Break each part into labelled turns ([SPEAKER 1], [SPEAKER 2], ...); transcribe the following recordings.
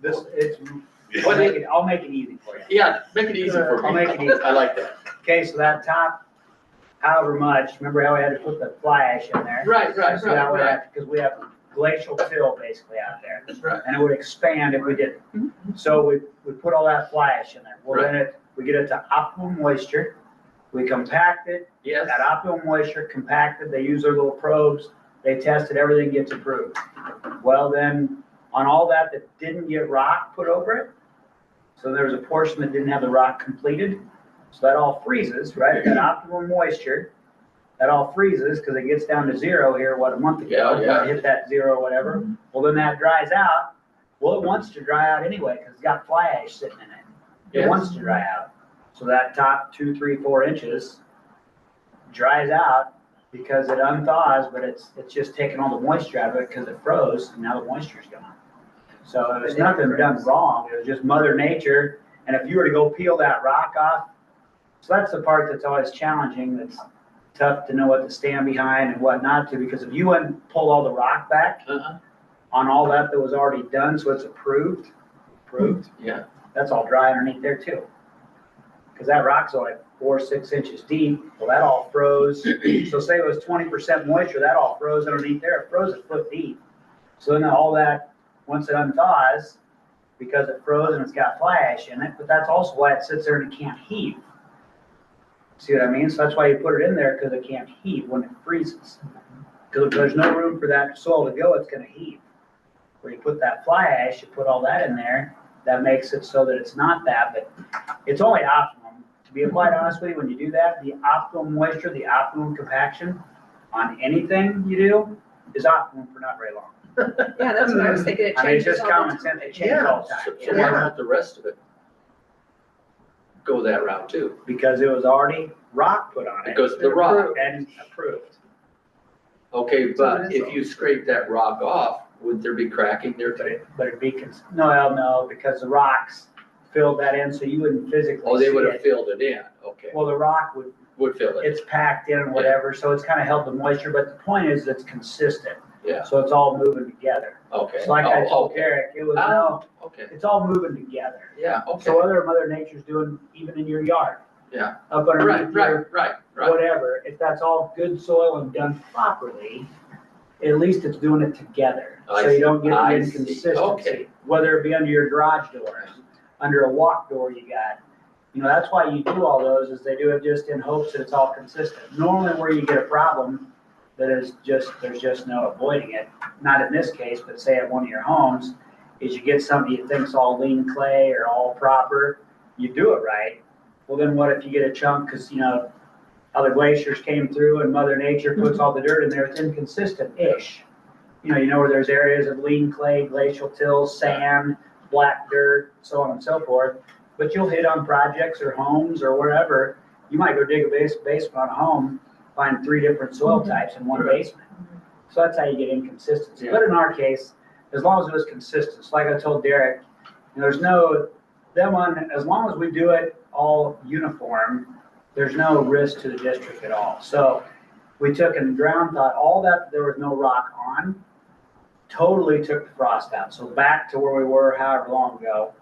[SPEAKER 1] This, it's, we'll make it, I'll make it easy for you.
[SPEAKER 2] Yeah, make it easy for
[SPEAKER 1] I'll
[SPEAKER 2] me.
[SPEAKER 1] make it easy.
[SPEAKER 2] I like that.
[SPEAKER 1] Okay, so that top, however much, remember how we had to put the fly ash in there?
[SPEAKER 2] Right, right,
[SPEAKER 1] So that
[SPEAKER 2] right,
[SPEAKER 1] would
[SPEAKER 2] right.
[SPEAKER 1] have, because we have glacial till basically out there,
[SPEAKER 2] That's right.
[SPEAKER 1] and it would expand if we didn't. So we, we put all that fly ash in there. Well, then it, we get it to optimum moisture, we compact it,
[SPEAKER 2] Yes,
[SPEAKER 1] At optimum moisture, compacted, they use their little probes, they tested, everything gets approved. Well, then, on all that that didn't get rock put over it, so there was a portion that didn't have the rock completed, so that all freezes, right, at optimum moisture, that all freezes, because it gets down to zero here, what, a month ago?
[SPEAKER 2] Yeah, yeah.
[SPEAKER 1] Hit that zero or whatever, well, then that dries out, well, it wants to dry out anyway, because it's got fly ash sitting in it. It
[SPEAKER 2] yes.
[SPEAKER 1] wants to dry out. So that top two, three, four inches dries out because it unthaws, but it's, it's just taking all the moisture out of it because it froze and now the moisture's gone. So it was nothing done wrong. It was just mother nature. And if you were to go peel that rock off, so that's the part that's always challenging. That's tough to know what to stand behind and what not to, because if you wouldn't pull all the rock back
[SPEAKER 2] Uh-huh.
[SPEAKER 1] on all that that was already done, so it's approved, approved
[SPEAKER 2] Yeah,
[SPEAKER 1] that's all dry underneath there too. Cause that rock's only four, six inches deep, well, that all froze, so say it was twenty percent moisture, that all froze underneath there, it froze a foot deep. So then all that, once it unthaws, because it froze and it's got fly ash in it, but that's also why it sits there and it can't heat. See what I mean? So that's why you put it in there, cause it can't heat when it freezes. Cause if there's no room for that soil to go, it's gonna heat. Where you put that fly ash, you put all that in there, that makes it so that it's not that, but it's only optimum. To be quite honest with you, when you do that, the optimum moisture, the optimum compaction on anything you do is optimum for not very long.
[SPEAKER 3] Yeah, that's what I was thinking, it
[SPEAKER 1] I mean, it's
[SPEAKER 3] changes
[SPEAKER 1] just
[SPEAKER 3] all the time.
[SPEAKER 1] common sense, it changes
[SPEAKER 2] yeah.
[SPEAKER 1] all
[SPEAKER 2] So
[SPEAKER 1] the
[SPEAKER 2] so
[SPEAKER 1] time.
[SPEAKER 2] why not the rest of it? Go that route too.
[SPEAKER 1] Because it was already rock put on
[SPEAKER 2] It
[SPEAKER 1] it
[SPEAKER 2] goes to the rock.
[SPEAKER 1] and approved.
[SPEAKER 2] Okay, but
[SPEAKER 3] is
[SPEAKER 2] if you scrape that rock off, would there be cracking there
[SPEAKER 1] But
[SPEAKER 2] today?
[SPEAKER 1] it, but it'd be, cons- no, hell no, because the rocks filled that in, so you wouldn't physically
[SPEAKER 2] Oh, they
[SPEAKER 1] see
[SPEAKER 2] would have
[SPEAKER 1] it.
[SPEAKER 2] filled it in. Okay,
[SPEAKER 1] Well, the rock would
[SPEAKER 2] would fill it.
[SPEAKER 1] it's packed in and whatever, so it's kind of held the moisture, but the point is it's consistent.
[SPEAKER 2] Yeah.
[SPEAKER 1] So it's all moving together.
[SPEAKER 2] Okay.
[SPEAKER 1] So like I
[SPEAKER 2] Oh,
[SPEAKER 1] told
[SPEAKER 2] okay.
[SPEAKER 1] Eric, it was,
[SPEAKER 2] Oh,
[SPEAKER 1] no,
[SPEAKER 2] Okay,
[SPEAKER 1] it's all moving together.
[SPEAKER 2] yeah, okay.
[SPEAKER 1] So whether mother nature's doing even in your yard.
[SPEAKER 2] Yeah.
[SPEAKER 1] Up
[SPEAKER 2] Right,
[SPEAKER 1] underneath your
[SPEAKER 2] right, right, right.
[SPEAKER 1] whatever, if that's all good soil and done properly, at least it's doing it together.
[SPEAKER 2] Oh, I
[SPEAKER 1] So you don't get the
[SPEAKER 2] I see.
[SPEAKER 1] inconsistency,
[SPEAKER 2] Okay.
[SPEAKER 1] whether it be under your garage door, under a walk door you got. You know, that's why you do all those, is they do it just in hopes that it's all consistent. Normally where you get a problem, that is just, there's just no avoiding it, not in this case, but say at one of your homes, is you get something you think's all lean clay or all proper, you do it right. Well, then what if you get a chunk, cause you know, how the glaciers came through and Mother Nature puts all the dirt in there, it's inconsistent-ish. You know, you know where there's areas of lean clay, glacial tills, sand, black dirt, so on and so forth. But you'll hit on projects or homes or wherever, you might go dig a base, basement on a home, find three different soil types in one
[SPEAKER 2] Right.
[SPEAKER 1] basement. So that's how you get inconsistency,
[SPEAKER 2] Yeah.
[SPEAKER 1] but in our case, as long as it was consistent, so like I told Derek, you know, there's no, that one, as long as we do it all uniform, there's no risk to the district at all. So we took and ground thought, all that, there was no rock on, totally took the frost out. So back to where we were however long ago,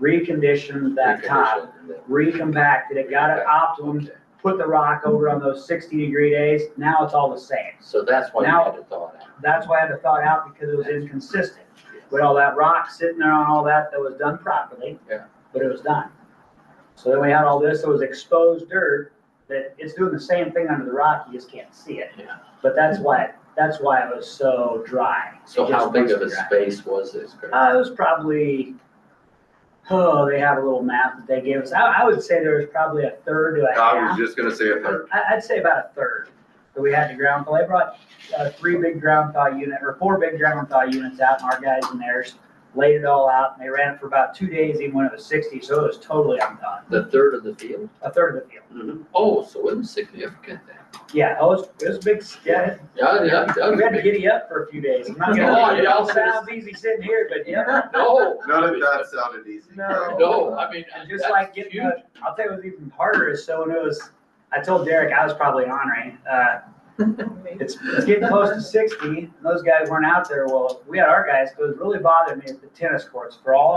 [SPEAKER 1] reconditioned that top,
[SPEAKER 2] Reconditioned.
[SPEAKER 1] recompacted it, got it optimum,
[SPEAKER 2] Okay.
[SPEAKER 1] put the rock over on those sixty degree days, now it's all the same.
[SPEAKER 2] So that's why you
[SPEAKER 1] Now-
[SPEAKER 2] had to thaw it out.
[SPEAKER 1] That's why I had to thaw it out because it was inconsistent. With all that rock sitting there on all that that was done properly.
[SPEAKER 2] Yeah.
[SPEAKER 1] But it was done. So then we had all this that was exposed dirt that it's doing the same thing under the rock, you just can't see it.
[SPEAKER 2] Yeah.
[SPEAKER 1] But that's why, that's why it was so dry.
[SPEAKER 2] So
[SPEAKER 1] It
[SPEAKER 2] how
[SPEAKER 1] just
[SPEAKER 2] big of a
[SPEAKER 1] wasn't dry.
[SPEAKER 2] space was this?
[SPEAKER 1] Uh, it was probably, oh, they have a little map that they gave us. I, I would say there was probably a third to a half.
[SPEAKER 4] I was just gonna say a third.
[SPEAKER 1] I, I'd say about a third that we had to ground thaw. They brought, uh, three big ground thaw unit, or four big ground thaw units out, and our guys and theirs laid it all out, and they ran it for about two days, even when it was sixty, so it was totally undone,
[SPEAKER 2] The third of the field?
[SPEAKER 1] a third of the field.
[SPEAKER 2] Oh, so it was significant then.
[SPEAKER 1] Yeah, it was, it was a big, s- yeah,
[SPEAKER 2] Yeah, yeah, that
[SPEAKER 1] we
[SPEAKER 2] was
[SPEAKER 1] had to
[SPEAKER 2] big.
[SPEAKER 1] giddy up for a few days. I'm not
[SPEAKER 2] Oh,
[SPEAKER 1] gonna, it
[SPEAKER 2] yeah, I'll
[SPEAKER 1] all
[SPEAKER 2] say
[SPEAKER 1] sounds easy sitting here, but yeah.
[SPEAKER 2] No.
[SPEAKER 4] None of that sounded easy.
[SPEAKER 3] No.
[SPEAKER 2] No, I mean,
[SPEAKER 1] And
[SPEAKER 2] that's
[SPEAKER 1] just like getting,
[SPEAKER 2] huge.
[SPEAKER 1] a- I'll tell you what's even harder is so when it was, I told Derek I was probably honoring, uh, It's, it's getting close to sixty, and those guys weren't out there, well, we had our guys, 'cause what really bothered me is the tennis courts, for all